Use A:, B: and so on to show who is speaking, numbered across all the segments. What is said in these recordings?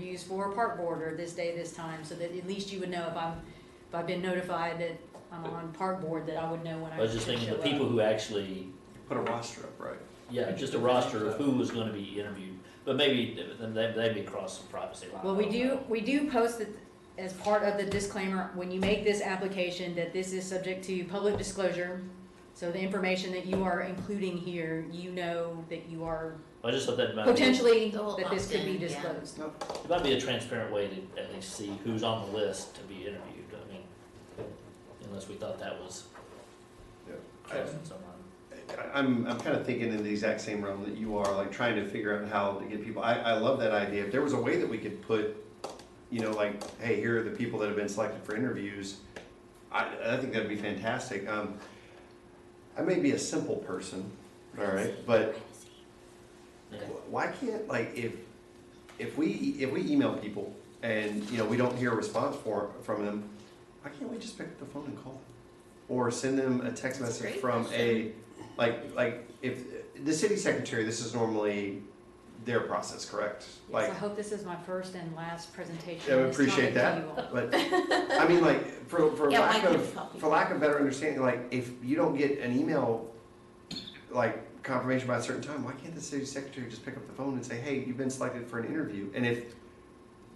A: used for a park board or this day, this time, so that at least you would know if I'm, if I've been notified that I'm on park board, that I would know when I
B: I was
A: should
B: just
A: show up.
B: thinking, the people who actually,
C: Put a roster up, right?
B: yeah, just a roster of who was gonna be interviewed, but maybe, th- then they- they'd be across some privacy line.
A: Well, we do, we do post it as part of the disclaimer, when you make this application, that this is subject to public disclosure. So the information that you are including here, you know that you are
B: I just thought that might. be-
A: potentially,
D: They'll
A: that this could be
D: opt in, yeah.
A: disclosed.
B: It might be a transparent way to at least see who's on the list to be interviewed, I mean, unless we thought that was
E: Yeah.
B: crossing some line.
E: I- I'm, I'm kind of thinking in the exact same realm that you are, like trying to figure out how to get people. I, I love that idea. If there was a way that we could put, you know, like, hey, here are the people that have been selected for interviews, I, I think that'd be fantastic. Um, I may be a simple person, all right, but wh- why can't, like, if, if we, if we email people and, you know, we don't hear a response for, from them, why can't we just pick up the phone and call them? Or send them a text
D: That's a
E: message
D: great
E: from a,
D: question.
E: like, like, if, the city secretary, this is normally their process, correct?
A: Yes,
E: Like,
A: I hope this is my first and last presentation.
E: I would
A: on this topic
E: appreciate that.
A: to you all.
E: but, I mean, like, for, for
D: Yeah,
E: lack
D: why
E: of,
D: can't copy?
E: for lack of better understanding, like, if you don't get an email, like, confirmation by a certain time, why can't the city secretary just pick up the phone and say, hey, you've been selected for an interview? And if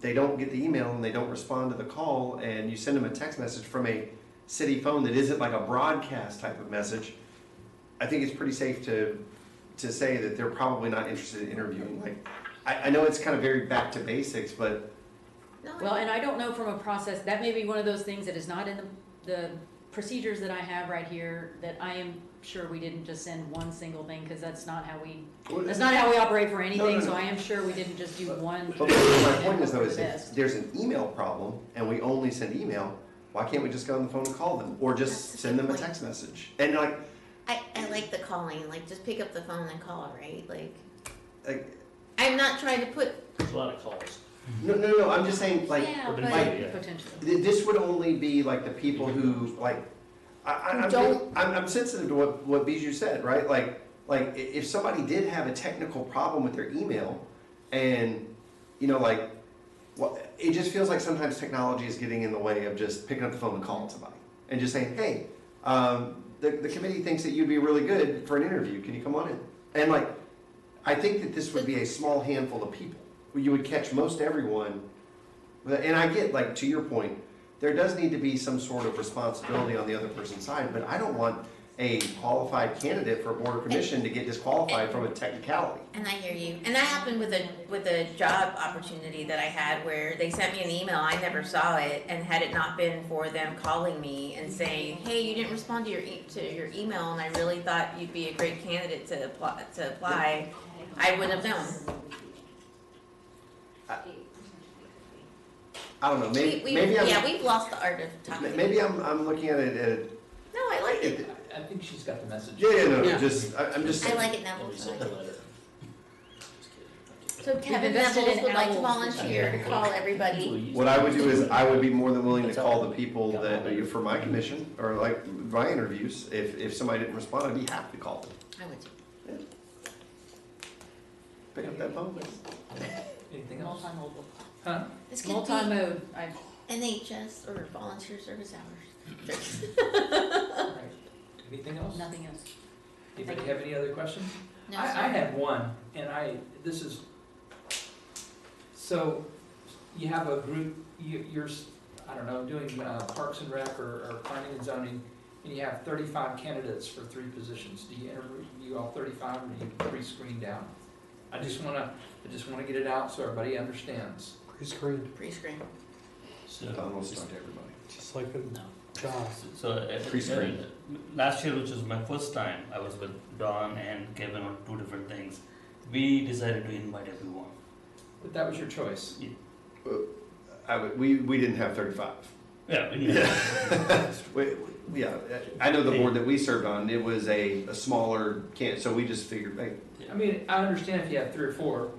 E: they don't get the email and they don't respond to the call, and you send them a text message from a city phone that isn't like a broadcast type of message, I think it's pretty safe to, to say that they're probably not interested in interviewing. Like, I, I know it's kind of very back to basics, but
D: No,
A: Well, and I don't know from a process, that may be one of those things that is not in the, the procedures that I have right here, that I am sure we didn't just send one single thing, because that's not how we, that's not how we operate for anything,
E: no,
A: so
E: no.
A: I am sure we didn't just do one.
E: But my point
A: and
E: is though,
A: hope
E: is
A: for the
E: if
A: best.
E: there's an email problem and we only send email, why can't we just get on the phone and call them? Or
D: That's a
E: just send them
D: good
E: a
D: point.
E: text message? And like,
D: I, I like the calling, like just pick up the phone and call, right? Like,
E: like,
D: I'm not trying to put,
B: There's a lot of calls.
E: no, no, no, I'm just saying, like,
A: Yeah,
B: but-
A: but potentially.
E: th- this would only be like the people who, like, I, I, I'm,
D: Don't-
E: I'm, I'm sensitive to what, what Bijou said, right? Like, like i- if somebody did have a technical problem with their email and, you know, like, well, it just feels like sometimes technology is getting in the way of just picking up the phone and calling somebody and just saying, hey, um, the, the committee thinks that you'd be really good for an interview. Can you come on in? And like, I think that this would be a small handful of people. You would catch most everyone. But- And I get, like, to your point, there does need to be some sort of responsibility on the other person's side, but I don't want a qualified candidate for a board or commission to get disqualified from a technicality.
D: and I hear you. And that happened with a, with a job opportunity that I had where they sent me an email, I never saw it. And had it not been for them calling me and saying, hey, you didn't respond to your, e- to your email and I really thought you'd be a great candidate to apply, to apply, I wouldn't have known.
E: I don't know,
D: We,
E: maybe,
D: we,
E: Uh, maybe
D: yeah,
E: I'm,
D: we've lost the art of talking.
E: m- maybe I'm, I'm looking at it, at-
D: No, I like
E: at,
D: it.
E: the-
F: I think she's got the message.
E: yeah, yeah, no,
F: Yeah.
E: just, I- I'm just,
D: I Oh, like it now.
B: When we sent the letter. Just kidding.
D: So Kevin
A: We've invested
D: Neville
A: in
D: would like to
A: owls.
D: volunteer to call everybody.
B: Employees.
E: what I would do is, I would be more than willing to
B: That's
E: call
B: all.
E: the people that, for my commission, or like, my interviews, if, if somebody didn't respond, I'd be happy to call them.
D: I would too.
E: Pick up that phone.
F: Anything else?
A: Multimodal.
F: Huh?
D: This could be
A: Multi-mode, I,
D: NHS or volunteer service hours.
F: All right. Anything else?
A: nothing else.
F: Anybody have any other questions?
D: No,
F: I, I
D: sorry.
F: have one, and I, this is, so you have a group, you, you're, s- I don't know, doing uh, Parks and Rec or, or planning and zoning, and you have thirty-five candidates for three positions. Do you interview all thirty-five or do you pre-screen down? I just wanna, I just wanna get it out so everybody understands.
G: Pre-screen,
D: Pre-screen.
B: So,
E: Don wants to talk to everybody.
G: just like a
H: No.
G: job.
H: So uh,
E: Pre-screened.
H: uh, Last year, which was my first time, I was with Don and Kevin on two different things. We decided to invite everyone.
F: But that was your choice.
E: I would, we, we didn't have thirty-five.
H: Yeah. we invited
E: Yeah. We- we- Yeah, I know the board that we served on, it was a, a smaller can, so we just figured, hey,
F: I mean, I understand if you have three or four,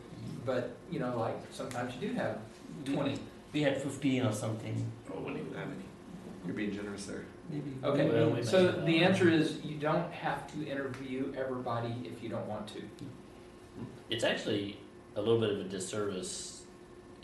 F: but, you know, like, sometimes you do have
H: We-
F: twenty.
H: We had fifteen or something.
E: oh, we didn't have any. You're being generous there.
H: Maybe.
B: Well, we
F: Okay, so
B: mentioned
F: the
B: that.
F: answer is you don't have to interview everybody if you don't want to.
B: It's actually a little bit of a disservice